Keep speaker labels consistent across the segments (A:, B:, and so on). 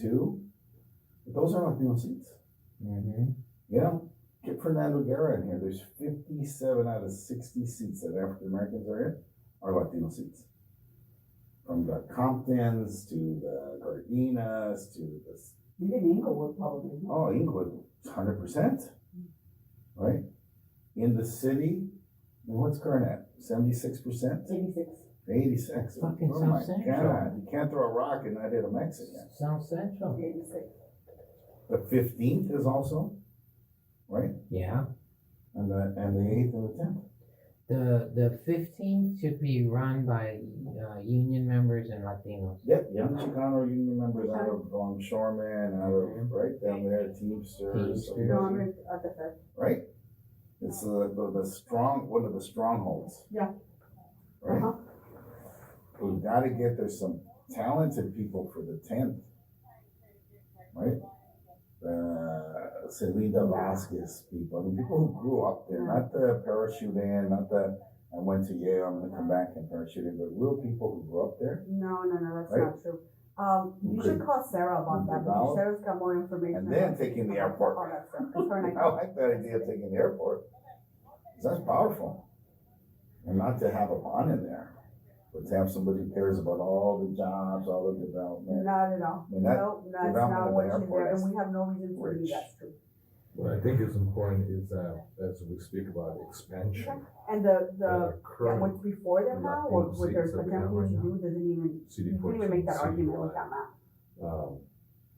A: too. But those aren't like seats.
B: Mm-hmm.
A: Yeah. Get Fernando Guerra in here. There's 57 out of 60 seats that African Americans are in are Latino seats. From the Comptons to the Gardinas to the
C: Even Inglewood probably.
A: Oh, Inglewood, hundred percent, right? In the city, well, what's current at seventy-six percent,
C: Eighty-six.
A: eighty-six.
B: Fucking
A: Oh my
B: South Central.
A: God, You can't throw a rock and not hit a Mexican.
B: South Central.
C: Eighty-six.
A: The fifteenth is also, right?
B: Yeah.
A: And the and the eighth and the tenth.
B: The the 15th should be run by uh, union members and Latinos.
A: Yep, young Chicano union members out of um, Shoreman, out of right down there, Teamsters, so you
B: Teamsters.
A: guys-
C: Congress at the fifth.
A: right? It's uh, the the strong one of the strongholds.
C: Yeah.
A: Right.
C: Uh-huh.
A: We've got to get there some talented people for the tenth, right? Uh, Celina Vasquez people, I mean, people who grew up there, not the parachute in, not the I went to Yale, I'm gonna come back and parachute in, but real people who grew up there.
C: No, no, no, that's
A: Right.
C: not true. Um, you
A: Okay.
C: should call Sarah about that, because
A: Develop.
C: Sarah's got more information.
A: And then
C: about-
A: taking the
C: about
A: airport.
C: all that stuff, 'cause her and I-
A: I like that idea of taking the airport. 'Cause That's powerful. And not to have a bond in there, but to have somebody who cares about all the jobs, all the development.
C: Not at all.
A: And that-
C: Nope, that's
A: development
C: not
A: of
C: what
A: the
C: she's
A: airport
C: there,
A: is
C: and we have no reason to
A: rich.
C: believe that's true.
D: What I think is important is, uh, as we speak about expansion,
C: And the, the,
D: the
C: yeah, what's
D: current
C: before them now, or
D: Latino
C: what they're
D: seats that we have
C: attempting
D: right
C: to
D: now.
C: do, doesn't even,
D: city
C: you can't even make
D: portion,
C: that argument with
D: citywide,
C: that map.
D: um,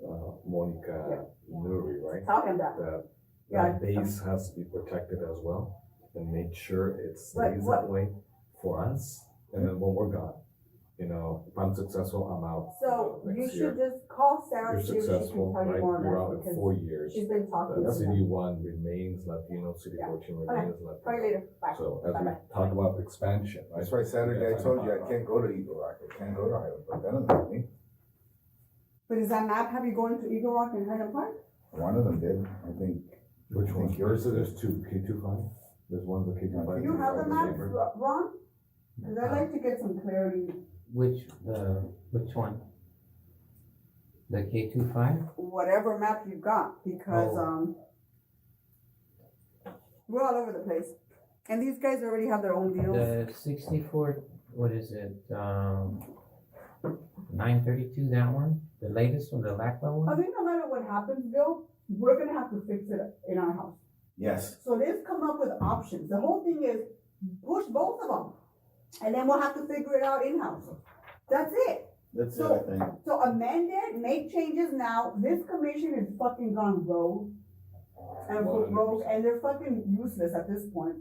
D: uh, Monica Nuri, right?
C: Talking about,
D: That,
C: Yeah.
D: that base has to be protected as well and make sure it
C: But
D: stays
C: what-
D: that way for us. And then when we're gone, you know, if I'm successful, I'm out.
C: so
D: uh,
C: you
D: next
C: should
D: year.
C: just call Sarah,
D: You're
C: see if she can
D: successful,
C: tell
D: right?
C: you more
D: You're
C: about
D: out
C: it,
D: in
C: because
D: four years.
C: she's been talking
D: That
C: to
D: city
C: them.
D: one remains Latino, city
C: Yeah.
D: fourteen
C: Okay.
D: remains Latino.
C: Probably later, bye.
D: So as we
C: Bye-bye.
D: talk about expansion, right?
A: That's why Saturday I told you I can't go to Eagle Rock, I can't go to Highland Park, that doesn't help me.
C: But does that map have you going to Eagle Rock and Highland Park?
A: One of them did, I think.
D: Which
A: I
D: one?
A: think
D: Yours
A: yours
D: is
A: is-
D: there's two, K two five, there's one's a K two five.
A: I
C: You
A: think
C: have
A: I
C: the
A: was
C: maps,
A: there.
C: Ro- Ron? Cause I'd like to get some clarity,
B: Which uh, which one? The K25?
C: whatever map you've got, because,
B: Oh.
C: um, we're all over the place. And these guys already have their own deals.
B: The 64, what is it? Um, 932, that one? The latest one, the LACLA
C: I
B: one?
C: think no matter what happens, Bill, we're gonna have to fix it in our house.
A: Yes,
C: So they've come up with options. The whole thing is push both of them. And then we'll have to figure it out in-house. That's it.
A: that's
C: So-
A: it, I think.
C: So amend it, make changes now. This commission is fucking gone rogue. And for
D: 100%.
C: rogue, and they're fucking useless at this point.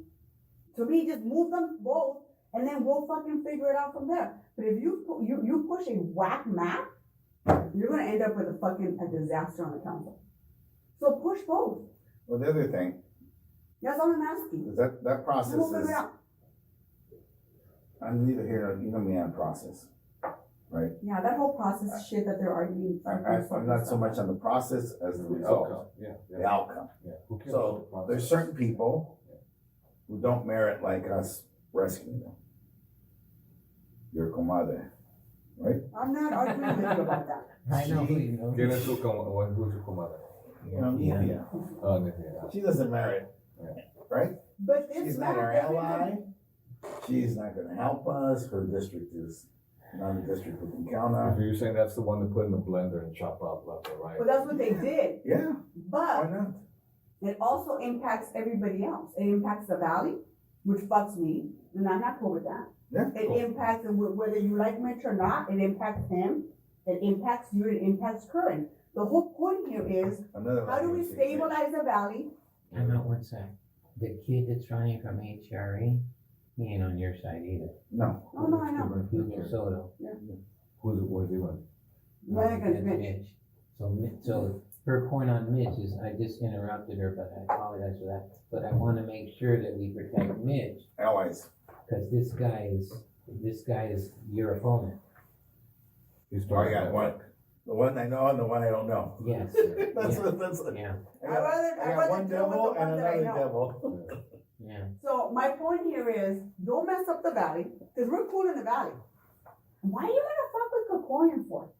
C: To me, just move them both and then we'll fucking figure it out from there. But if you, pu- you, you push a whack map, you're gonna end up with a fucking, a disaster on the council. So push both.
A: Well, the other thing,
C: That's all I'm asking.
A: is that, that process
C: We'll figure
A: is,
C: it out.
A: I'm neither here, nor- you know me on process, right?
C: Yeah, that whole process shit that they're arguing.
A: I, I, I'm not so much on the process as the result,
D: Yeah, yeah,
A: the outcome.
D: yeah. Who cares
A: So
D: about the
A: there's
D: process?
A: certain people who don't merit like us rescuing them. Your comadre, right?
C: I'm not arguing with you about that.
B: I know who you know.
D: ¿Quién es tu com- o- who's your comadre?
A: You know,
B: Yeah.
A: Nithya.
D: Oh, Nithya.
A: She doesn't merit, right?
C: But this
A: She's not
C: map
A: our
C: doesn't-
A: ally. She's not gonna help us. Her district is not a district we can count
D: If
A: on.
D: you're saying that's the one to put in the blender and chop up left or right.
C: But that's what they did.
A: Yeah, why
C: But
A: not?
C: it also impacts everybody else. It impacts the valley, which fucks me, and I'm not cool with that.
A: Yeah.
C: It impacts wh- whether you like Mitch or not. It impacts him. It impacts you. It impacts Curran. The whole point here is
A: Another
C: how do we
A: one.
C: stabilize the valley?
B: I'm not one sec. The kid that's running from HRE, he ain't on your side either.
A: No,
C: Oh no, I know.
B: Hugo Soto.
D: Who's, what is he running?
C: We're not gonna
B: That's
C: finish.
B: Mitch. So, Mi- so her point on Mitch is, I just interrupted her, but I apologize for that. But I wanna make sure that we protect Mitch,
A: allies.
B: cause this guy is, this guy is your opponent.
D: He's
A: Oh, I
D: talking
A: got
D: about-
A: one. The one I know and the one I don't know.
B: Yes,
A: That's,
B: Yeah.
A: what- that's. what-
B: yeah,
A: I
C: I'd
A: got-
C: rather-
A: I
C: I'd
A: got
C: rather
A: one
C: deal with
A: devil
C: the
A: and
C: one that I
A: another
C: know.
A: devil.
B: yeah.
C: So my point here is, don't mess up the valley, because we're cool in the valley. Why are you gonna fuck with Kokorian for?